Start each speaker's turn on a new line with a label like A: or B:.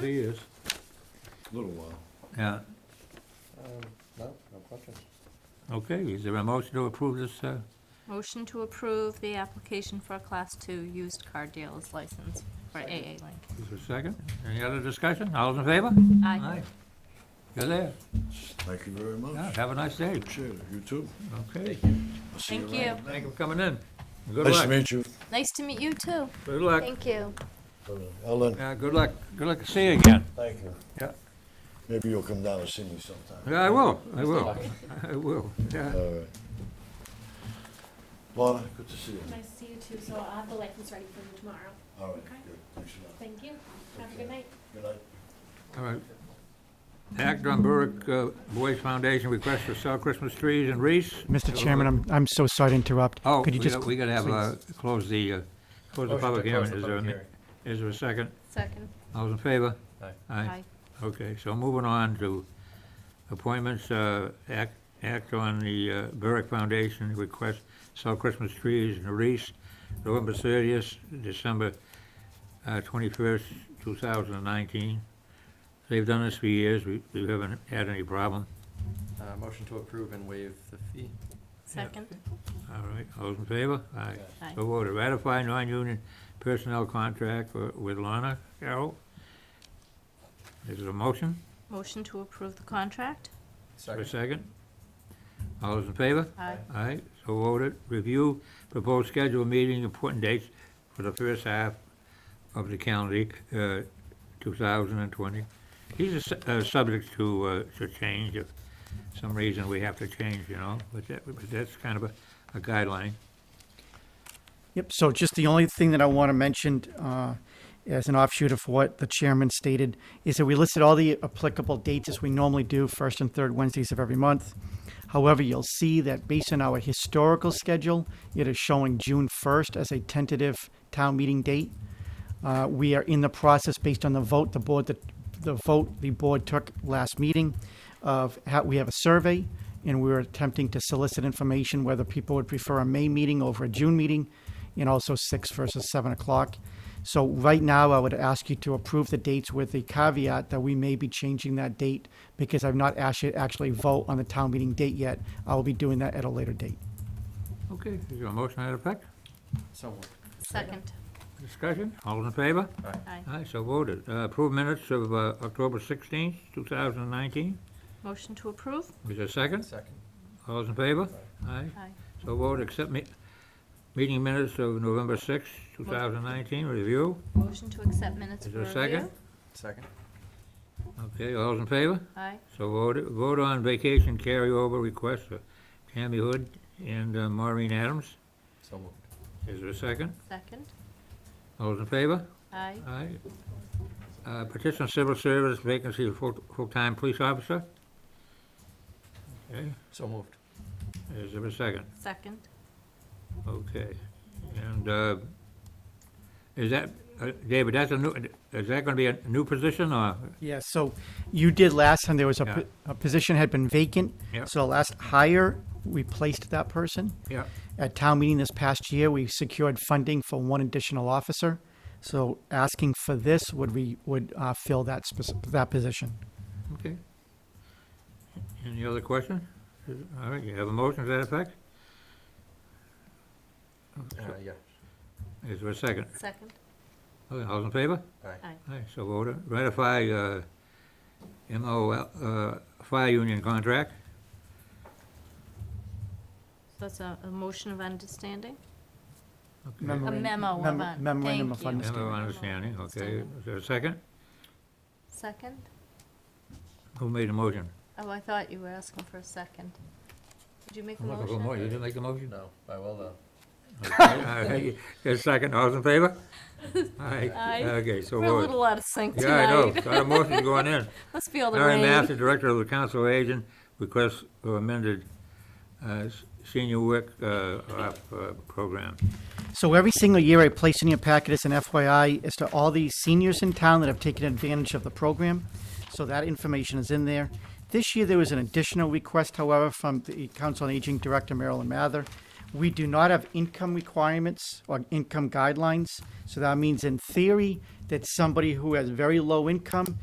A: He is.
B: Little while.
A: Yeah,
C: Um, No, no questions.
A: okay, is there a motion to approve this, uh,
D: Motion to approve the application for a Class 2 used car dealer's license for AA Link.
A: is there a second? Any other discussion? All those in favor?
D: Aye.
A: You're there.
B: Thank you very
A: Yeah,
B: much.
A: have a nice day.
B: Appreciate it. You too.
A: Okay,
B: I'll see
D: Thank
B: around.
D: you.
A: thank you for coming in. Good
B: Nice to
A: luck,
B: meet you.
D: Nice to meet you, too.
A: good luck.
E: Thank you.
B: Ellen,
A: Yeah, good luck, good luck to see you again.
B: thank you.
A: Yeah.
B: Maybe you'll come down and see me sometime.
A: Yeah, I will, I will, I will, yeah.
B: All right. Lana, good to see you.
F: Nice to see you too, so I'll have the license ready for you tomorrow.
B: All right,
F: Okay.
B: good. Thanks a lot.
F: Thank you, have a
B: Okay.
F: good night.
B: Good night.
A: All right. Act on Berwick uh, Boys Foundation request for sell Christmas trees in Reese.
G: Mr. Chairman, I'm, I'm so sorry to interrupt.
A: Oh,
G: Could
A: we
G: you just
A: gotta, we gotta have, uh, close the, uh, close the
C: Motion to
A: public
C: close
A: hearing.
C: the
A: Is there,
C: public
A: a- is there a second?
D: Second.
A: All those in favor?
C: Aye.
A: Aye. Okay, so moving on to appointments, uh, act, act on the uh, Berwick Foundation request, sell Christmas trees in Reese, November thirtieth, December uh, twenty-first, two thousand and nineteen. They've done this for years, we, we haven't had any problem.
C: Uh, Motion to approve and waive the fee.
D: Second.
A: All right, all those in favor? Aye.
D: Aye.
A: So voted, ratify non-union personnel contract wi- with Lana Carroll. Is it a motion?
D: Motion to approve the contract?
A: For a second? All those in favor?
D: Aye.
A: Aye, so voted. Review proposed schedule meeting important dates for the first half of the calendar, uh, 2020. These are su- uh, subject to, uh, to change if some reason we have to change, you know, but that, but that's kind of a a guideline.
G: Yep, so just the only thing that I want to mention uh, as an offshoot of what the chairman stated is that we listed all the applicable dates as we normally do, first and third Wednesdays of every month. However, you'll see that based on our historical schedule, it is showing June 1st as a tentative town meeting date. Uh, We are in the process, based on the vote, the board, the, the vote the board took last meeting of how, we have a survey and we were attempting to solicit information whether people would prefer a May meeting over a June meeting and also six versus seven o'clock. So right now, I would ask you to approve the dates with the caveat that we may be changing that date because I've not actually, actually vote on the town meeting date yet. I will be doing that at a later date.
A: Okay, is there a motion to that effect?
C: So moved.
D: Second.
A: Discussion? All those in favor?
D: Aye.
A: Aye, so voted. Uh, Approved minutes of uh, October 16th, 2019.
D: Motion to approve?
A: Is there a second?
C: Second.
A: All those in favor? Aye.
D: Aye.
A: So voted, accept me, meeting minutes of November 6th, 2019, review.
D: Motion to accept minutes
A: Is
D: for
A: there a
D: review?
A: second?
C: Second.
A: Okay, all those in favor?
D: Aye.
A: So voted, vote on vacation carryover request for Tammy Hood and uh, Maureen Adams.
C: So moved.
A: Is there a second?
D: Second.
A: All those in favor?
D: Aye.
A: Aye. Uh, Petition of civil service vacancy of full- full-time police officer. Okay,
C: So moved.
A: is there a second?
D: Second.
A: Okay, and, uh, is that, uh, David, that's a new, is that gonna be a new position, or?
G: Yeah, so you did last time, there was a,
A: Yeah.
G: po- a position had been vacant.
A: Yeah.
G: So the last hire, we placed that person.
A: Yeah.
G: At town meeting this past year, we secured funding for one additional officer. So asking for this would we, would uh, fill that spec- that position.
A: Okay. Any other question? All right, you have a motion to that effect?
C: Uh, Yeah.
A: Is there a second?
D: Second.
A: Okay, All in favor?
C: Aye.
A: Aye, so voted. Ratify, uh, MOL, uh, fire union contract.
D: That's a, a motion of understanding?
A: Okay.
D: A
G: Memorandum-
D: memo of
G: memo-
D: un-
G: memorandum
D: thank
G: of
D: you.
A: Member of understanding, okay. Is there a second?
D: Second?
A: Who made the motion?
D: Oh, I thought you were asking for a second. Did you make a
A: I'm oh, looking for a
D: motion?
A: motion. You didn't make a motion?
C: No, I will though.
A: Okay, uh, A second, all's in favor? Aye.
D: Aye.
A: Okay, so
D: We're a
A: voted.
D: little out of sync
A: Yeah, I know,
D: tonight.
A: got a motion going in.
D: Let's feel the
A: Aaron
D: rain.
A: Master, Director of the Council of Agent, requests for amended uh, s- senior work uh, op, uh, program.
G: So every single year, I place in your packet as an FYI as to all the seniors in town that have taken advantage of the program. So that information is in there. This year, there was an additional request, however, from the Council on Aging Director Marilyn Mather. We do not have income requirements or income guidelines, so that means in theory, that somebody who has very low income